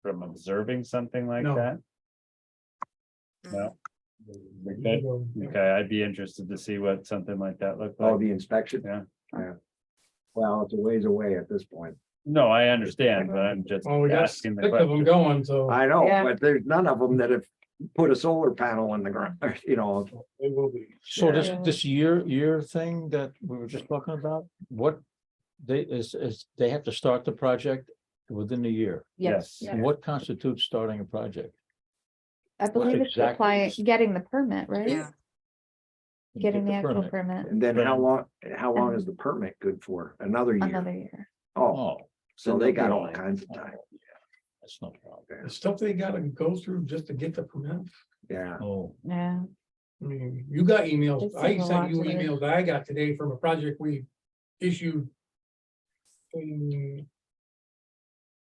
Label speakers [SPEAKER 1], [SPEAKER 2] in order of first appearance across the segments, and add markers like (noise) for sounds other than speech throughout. [SPEAKER 1] from observing something like
[SPEAKER 2] No.
[SPEAKER 1] that?
[SPEAKER 3] Mm-hmm.
[SPEAKER 1] No. Okay, okay, I'd be interested to see what something like that looked
[SPEAKER 4] Oh,
[SPEAKER 1] like.
[SPEAKER 4] the inspection?
[SPEAKER 1] Yeah.
[SPEAKER 4] Yeah. Well, it's a ways away at this point.
[SPEAKER 1] No, I understand, but I'm just
[SPEAKER 2] Well, oh, we got six
[SPEAKER 1] asking
[SPEAKER 2] of
[SPEAKER 1] the question.
[SPEAKER 2] them going, so
[SPEAKER 4] I know,
[SPEAKER 5] Yeah.
[SPEAKER 4] but there's none of them that have put a solar panel on the ground, (laughs) you know,
[SPEAKER 2] it will be.
[SPEAKER 6] So this,
[SPEAKER 5] Yeah.
[SPEAKER 6] this year, year thing that we were just talking about, what they is, is they have to start the project within a year.
[SPEAKER 1] Yes,
[SPEAKER 5] Yeah.
[SPEAKER 6] What constitutes starting a project?
[SPEAKER 5] I believe it's the
[SPEAKER 6] exactly
[SPEAKER 5] client
[SPEAKER 6] is-
[SPEAKER 5] getting the permit, right?
[SPEAKER 3] Yeah.
[SPEAKER 5] Getting the
[SPEAKER 6] Get
[SPEAKER 5] actual
[SPEAKER 6] permit.
[SPEAKER 5] permit
[SPEAKER 4] and then how long, how long is the permit good for? Another year?
[SPEAKER 5] another year.
[SPEAKER 4] Oh,
[SPEAKER 6] Oh.
[SPEAKER 4] so they got all
[SPEAKER 6] really?
[SPEAKER 4] kinds of time,
[SPEAKER 6] That's no problem.
[SPEAKER 2] The stuff they gotta go through just to get the permit.
[SPEAKER 4] yeah.
[SPEAKER 6] Oh,
[SPEAKER 5] Yeah,
[SPEAKER 2] I mean, you got emails.
[SPEAKER 5] It's
[SPEAKER 2] I
[SPEAKER 5] like a lot
[SPEAKER 2] sent you
[SPEAKER 5] to do.
[SPEAKER 2] emails I got today from a project we issued. In.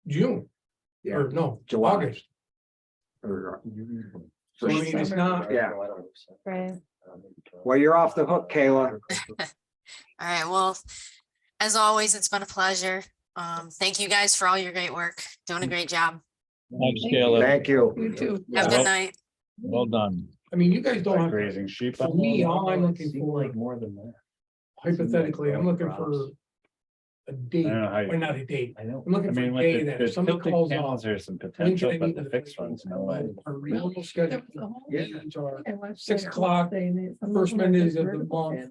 [SPEAKER 2] June,
[SPEAKER 4] Yeah,
[SPEAKER 2] or no,
[SPEAKER 4] July.
[SPEAKER 2] August.
[SPEAKER 4] or-
[SPEAKER 2] So
[SPEAKER 4] so
[SPEAKER 2] I
[SPEAKER 4] she-
[SPEAKER 2] mean, it's not,
[SPEAKER 4] Yeah,
[SPEAKER 5] right.
[SPEAKER 4] well, you're off the hook, Kayla.
[SPEAKER 3] All right, well, as always, it's been a pleasure. Um, thank you guys for all your great work. Doing a great job.
[SPEAKER 6] thanks,
[SPEAKER 5] Thank
[SPEAKER 6] Kayla.
[SPEAKER 4] Thank you.
[SPEAKER 5] too.
[SPEAKER 3] Have a
[SPEAKER 6] Yeah.
[SPEAKER 3] good night.
[SPEAKER 6] Well done.
[SPEAKER 2] I mean, you guys don't
[SPEAKER 1] like
[SPEAKER 2] have
[SPEAKER 1] raising sheep.
[SPEAKER 2] For me, all I'm looking
[SPEAKER 1] Seems
[SPEAKER 2] for-
[SPEAKER 1] like More than that.
[SPEAKER 2] hypothetically, I'm looking for. A
[SPEAKER 1] I
[SPEAKER 2] date,
[SPEAKER 1] don't know how
[SPEAKER 2] or
[SPEAKER 1] you.
[SPEAKER 2] not a date.
[SPEAKER 1] I know.
[SPEAKER 2] I'm looking
[SPEAKER 1] I
[SPEAKER 2] for
[SPEAKER 1] mean,
[SPEAKER 2] a
[SPEAKER 1] with
[SPEAKER 2] day
[SPEAKER 1] the-
[SPEAKER 2] that
[SPEAKER 1] the
[SPEAKER 2] if somebody
[SPEAKER 1] tilted
[SPEAKER 2] calls
[SPEAKER 1] panels, There's some
[SPEAKER 2] When can
[SPEAKER 1] potential,
[SPEAKER 2] I
[SPEAKER 1] but
[SPEAKER 2] meet
[SPEAKER 1] the
[SPEAKER 2] with
[SPEAKER 1] fixed ones, no way.
[SPEAKER 2] A real schedule. meetings are- Six
[SPEAKER 7] Six
[SPEAKER 2] o'clock, first Mondays of the month.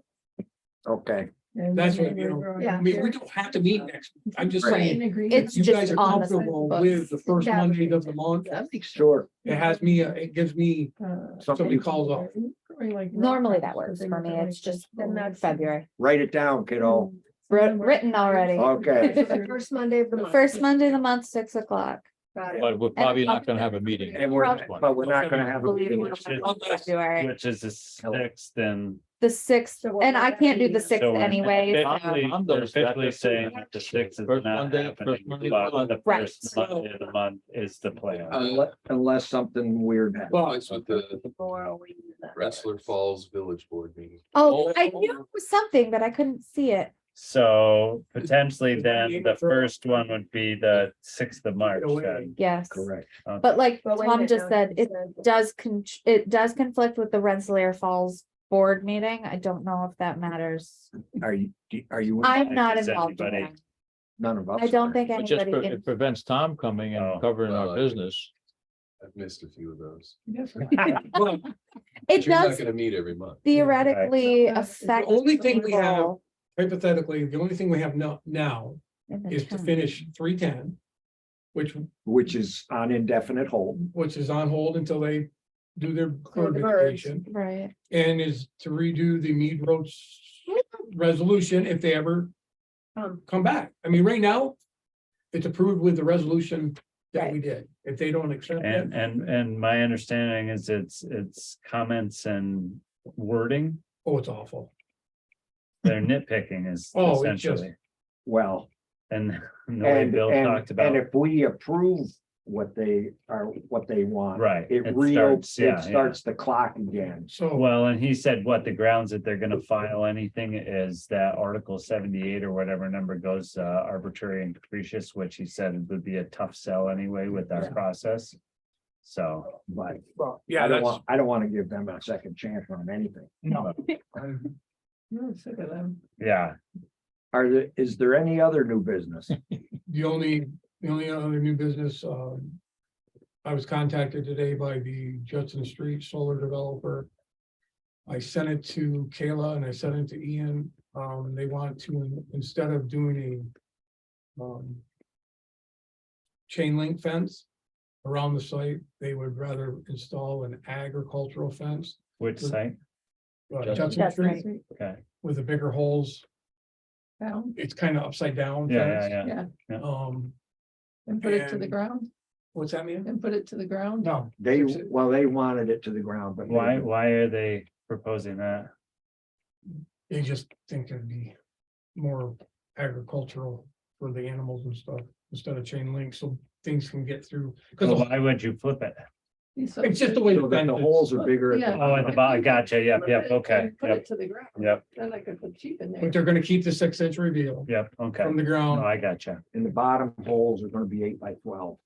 [SPEAKER 4] Okay,
[SPEAKER 2] That's what, you know, I
[SPEAKER 7] Yeah.
[SPEAKER 2] mean, we don't have to meet next, I'm just saying,
[SPEAKER 5] It's
[SPEAKER 2] if you guys
[SPEAKER 5] just
[SPEAKER 2] are
[SPEAKER 5] on the
[SPEAKER 2] comfortable
[SPEAKER 5] books.
[SPEAKER 2] with the first
[SPEAKER 7] Yeah.
[SPEAKER 2] Monday of the month.
[SPEAKER 4] sure.
[SPEAKER 2] It has me, uh, it gives me, somebody calls off.
[SPEAKER 5] Normally that works for me. It's just February.
[SPEAKER 4] Write it down, kiddo.
[SPEAKER 5] Writ- Written already.
[SPEAKER 4] Okay,
[SPEAKER 7] First Monday of the
[SPEAKER 5] The
[SPEAKER 7] month.
[SPEAKER 5] first Monday of the month, six o'clock.
[SPEAKER 7] Got it.
[SPEAKER 6] But we're probably not gonna have a meeting.
[SPEAKER 4] and we're, but we're not gonna have a
[SPEAKER 5] Mm-hmm. Believe it
[SPEAKER 4] meeting.
[SPEAKER 5] or not,
[SPEAKER 2] Unless-
[SPEAKER 5] February,
[SPEAKER 1] Which is the sixth and.
[SPEAKER 5] the sixth,
[SPEAKER 7] So what
[SPEAKER 5] and
[SPEAKER 7] would
[SPEAKER 5] I
[SPEAKER 7] that
[SPEAKER 5] can't do
[SPEAKER 7] be?
[SPEAKER 5] the sixth
[SPEAKER 1] so we're
[SPEAKER 5] anyways.
[SPEAKER 1] officially-
[SPEAKER 6] I'm
[SPEAKER 1] They're
[SPEAKER 6] those that
[SPEAKER 1] officially
[SPEAKER 6] just-
[SPEAKER 1] saying that the sixth is
[SPEAKER 6] First
[SPEAKER 1] not
[SPEAKER 6] Monday,
[SPEAKER 1] happening,
[SPEAKER 6] first Monday of the
[SPEAKER 1] but the
[SPEAKER 6] month.
[SPEAKER 5] Right.
[SPEAKER 1] first Monday of the month is the plan.
[SPEAKER 4] Unless, unless something weird happens.
[SPEAKER 2] well,
[SPEAKER 8] It's with the
[SPEAKER 7] Before we do that.
[SPEAKER 8] Wrestler Falls Village Board meeting.
[SPEAKER 5] Oh, I knew it was something, but I couldn't see it.
[SPEAKER 1] So potentially then
[SPEAKER 2] Monday
[SPEAKER 1] the
[SPEAKER 2] for-
[SPEAKER 1] first one would be the sixth of March
[SPEAKER 2] away.
[SPEAKER 1] then.
[SPEAKER 5] Yes,
[SPEAKER 4] Correct.
[SPEAKER 1] Okay. (laughs)
[SPEAKER 5] but like
[SPEAKER 7] But wait a
[SPEAKER 5] Tom
[SPEAKER 7] minute,
[SPEAKER 5] just
[SPEAKER 7] now
[SPEAKER 5] said,
[SPEAKER 7] you
[SPEAKER 5] it does con, it does conflict with the Rensselaer Falls Board meeting. I don't know if that matters.
[SPEAKER 4] Are you, are you?
[SPEAKER 5] I'm not
[SPEAKER 1] Is
[SPEAKER 5] involved in
[SPEAKER 1] anybody-
[SPEAKER 5] that.
[SPEAKER 4] None of us.
[SPEAKER 5] I don't think
[SPEAKER 6] It just,
[SPEAKER 5] anybody,
[SPEAKER 6] pre-
[SPEAKER 5] in-
[SPEAKER 6] it prevents Tom coming
[SPEAKER 1] Oh,
[SPEAKER 6] and covering
[SPEAKER 8] well,
[SPEAKER 6] our
[SPEAKER 8] I think-
[SPEAKER 6] business.
[SPEAKER 8] I've missed a few of those.
[SPEAKER 2] Well,
[SPEAKER 5] it
[SPEAKER 8] But You're not
[SPEAKER 5] does
[SPEAKER 8] gonna meet every month.
[SPEAKER 5] theoretically
[SPEAKER 7] Right.
[SPEAKER 5] affect.
[SPEAKER 2] The only thing we have
[SPEAKER 5] people
[SPEAKER 2] Hypothetically, the only thing we have no, now
[SPEAKER 5] in the
[SPEAKER 2] is to
[SPEAKER 5] town.
[SPEAKER 2] finish three ten. Which,
[SPEAKER 4] Which is on indefinite hold.
[SPEAKER 2] which is on hold until they do their
[SPEAKER 7] Clear
[SPEAKER 2] bird
[SPEAKER 7] the birds.
[SPEAKER 2] vacation
[SPEAKER 5] Right,
[SPEAKER 2] and is to redo the Mead Roads resolution if they ever
[SPEAKER 7] Um,
[SPEAKER 2] come back. I mean, right now, it's approved with the resolution that we did. If they don't accept it,
[SPEAKER 1] And, and, and my understanding is it's, it's comments and wording,
[SPEAKER 2] oh, it's awful.
[SPEAKER 1] they're
[SPEAKER 4] Mm-hmm.
[SPEAKER 1] nitpicking is
[SPEAKER 2] Oh, it's just-
[SPEAKER 1] essentially.
[SPEAKER 4] Well,
[SPEAKER 1] And (laughs) the way
[SPEAKER 4] and,
[SPEAKER 1] Bill
[SPEAKER 4] and,
[SPEAKER 1] talked
[SPEAKER 4] and
[SPEAKER 1] about,
[SPEAKER 4] if we approve what they are, what they want.
[SPEAKER 1] right.
[SPEAKER 4] It real, it
[SPEAKER 1] starts- yeah, yeah.
[SPEAKER 4] starts the clock again.
[SPEAKER 2] So,
[SPEAKER 1] Well, and he said what the grounds that they're gonna file anything is that article seventy-eight or whatever number goes uh, arbitrary and capricious, which he said would be a tough sell anyway with our process. So.
[SPEAKER 4] But
[SPEAKER 2] yeah,
[SPEAKER 4] I don't
[SPEAKER 2] that's,
[SPEAKER 4] want, I don't want to give them a second chance on anything.
[SPEAKER 1] No.
[SPEAKER 7] you're sick of them.
[SPEAKER 1] Yeah,
[SPEAKER 4] Are there, is there any other new
[SPEAKER 1] (laughs)
[SPEAKER 4] business?
[SPEAKER 2] the only, the only other new business, um. I was contacted today by the Judson Street Solar Developer. I sent it to Kayla and I sent it to Ian, um, they want to, instead of doing a. Um. Chain link fence around the site, they would rather install an agricultural fence.
[SPEAKER 1] which site?
[SPEAKER 2] uh,
[SPEAKER 6] Judson.
[SPEAKER 2] Judson
[SPEAKER 5] That's
[SPEAKER 2] Street
[SPEAKER 5] right.
[SPEAKER 1] Okay,
[SPEAKER 2] with the bigger holes,
[SPEAKER 7] Down
[SPEAKER 2] it's kind of upside down.
[SPEAKER 1] yeah,
[SPEAKER 2] fence.
[SPEAKER 1] yeah, yeah.
[SPEAKER 2] Um,
[SPEAKER 7] and put it to the
[SPEAKER 2] And-
[SPEAKER 7] ground,
[SPEAKER 2] what's that mean?
[SPEAKER 7] and put it to the ground.
[SPEAKER 2] No,
[SPEAKER 4] They, well, they wanted it to the ground, but.
[SPEAKER 1] Why, why are they proposing that?
[SPEAKER 2] they just think it'd be more agricultural for the animals and stuff instead of chain link, so things can get through.
[SPEAKER 1] Well,
[SPEAKER 2] Cause
[SPEAKER 1] Why would you flip it?
[SPEAKER 7] He's so
[SPEAKER 2] it's just the way
[SPEAKER 4] So
[SPEAKER 2] the
[SPEAKER 4] that
[SPEAKER 2] fence
[SPEAKER 4] the
[SPEAKER 2] is.
[SPEAKER 4] holes are bigger. at
[SPEAKER 7] Yeah.
[SPEAKER 1] Oh, at the bottom, gotcha, yep, yep, okay,
[SPEAKER 7] And Put
[SPEAKER 1] yep,
[SPEAKER 7] it to the ground.
[SPEAKER 1] yep,
[SPEAKER 7] Then I could put sheep in there.
[SPEAKER 2] But they're gonna keep the six inch reveal
[SPEAKER 1] yep, okay.
[SPEAKER 2] from the
[SPEAKER 1] No,
[SPEAKER 2] ground.
[SPEAKER 1] I gotcha.
[SPEAKER 4] And the bottom holes are gonna be eight by twelve.